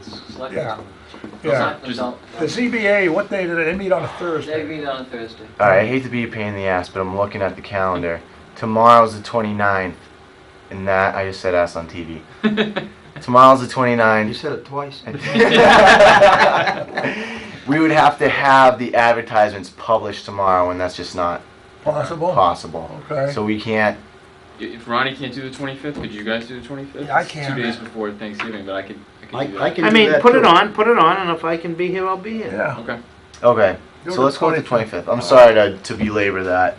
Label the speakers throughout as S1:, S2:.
S1: select
S2: Yeah.
S1: them.
S2: Yeah.
S1: Select them,
S2: The ZBA, what day did they, they meet on a
S1: they
S2: Thursday?
S1: meet on Thursday.
S3: All right, I hate to be a pain in the ass, but I'm looking at the calendar. Tomorrow's the 29th, and that I just said ass on TV. Tomorrow's the
S4: You
S3: 29th.
S4: said it twice.
S3: we would have to have the advertisements published tomorrow, and that's just not Oh,
S2: Possible?
S3: possible.
S2: Okay.
S3: So we can't.
S5: If Ronnie can't do the 25th, could you guys do the 25th?
S2: Yeah, I
S5: It's
S2: can.
S5: Two days before Thanksgiving, but I could. I could
S4: I-
S5: do
S4: I
S5: that.
S4: can-
S6: I
S4: do
S6: mean,
S4: that
S6: put it
S4: too.
S6: on, put it on, and if I can be here, I'll be here.
S2: Yeah.
S5: Okay.
S3: Okay.
S2: Do
S3: So
S2: the
S3: let's go with the 25th. I'm sorry to, to belabor that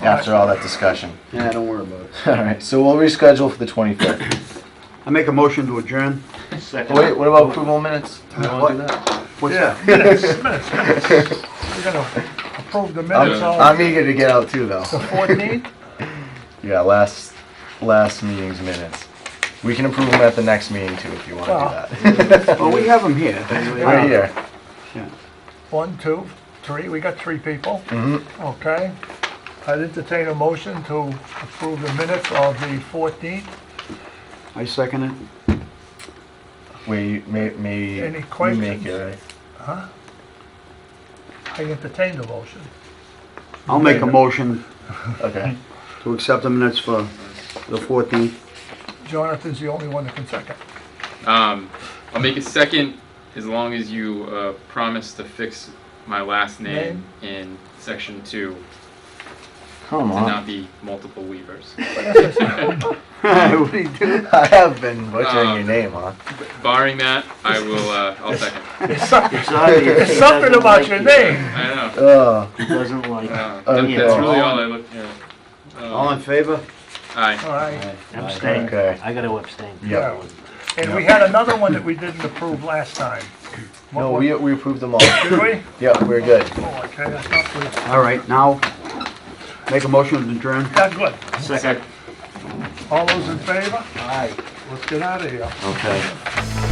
S3: after all that discussion.
S4: Yeah, don't worry about it.
S3: All right. So we'll reschedule for the 25th.
S4: I make a motion to adjourn.
S3: Oh, Wait, what about approval of minutes? Do you want to do that?
S4: What's
S2: Yeah, minutes, minutes, minutes. We're gonna approve the minutes
S3: I'm,
S2: on
S3: I'm eager to get out too, though.
S2: the 14th?
S3: Yeah, last last meeting's minutes. We can approve them at the next meeting too, if you want
S2: Well.
S3: to do that.
S4: Well, we have them here.
S3: Right here.
S2: One, two, three, we got three people,
S3: Mhm.
S2: okay? I'd entertain a motion to approve the minutes of the 14th.
S4: I second it.
S3: Wait, may, may
S2: Any
S3: you make
S2: questions?
S3: it, right?
S2: I entertain the motion.
S4: I'll make a motion
S3: Okay.
S4: to accept the minutes for the 14th.
S2: Jonathan's the only one that can second.
S5: Um, I'll make a second as long as you uh, promise to fix my last name, in section two
S3: Come
S5: to
S3: on.
S5: not be multiple Weavers.
S4: What do you do?
S3: I have been butchering your
S5: Um,
S3: name, huh?
S5: Barring that, I will. Uh, I'll second.
S2: There's something-
S4: It's obvious.
S2: there's something about your name.
S5: I know.
S3: Oh,
S4: He doesn't like it.
S5: Uh, that-
S3: Okay.
S5: That's really all I look. Yeah.
S4: All
S5: Um,
S4: in favor?
S5: aye.
S2: All right,
S6: Abstain.
S3: okay.
S6: I gotta abstain.
S3: Yeah.
S2: and we had another one that we didn't approve last time. What
S3: No,
S2: was-
S3: we, we approved them all.
S2: Did we?
S3: Yeah, we're good.
S2: Oh, okay, I thought we,
S4: All right, now, make a motion to adjourn.
S2: that's good.
S6: Second.
S2: All those in favor? Aye. Let's get out of here.
S3: Okay.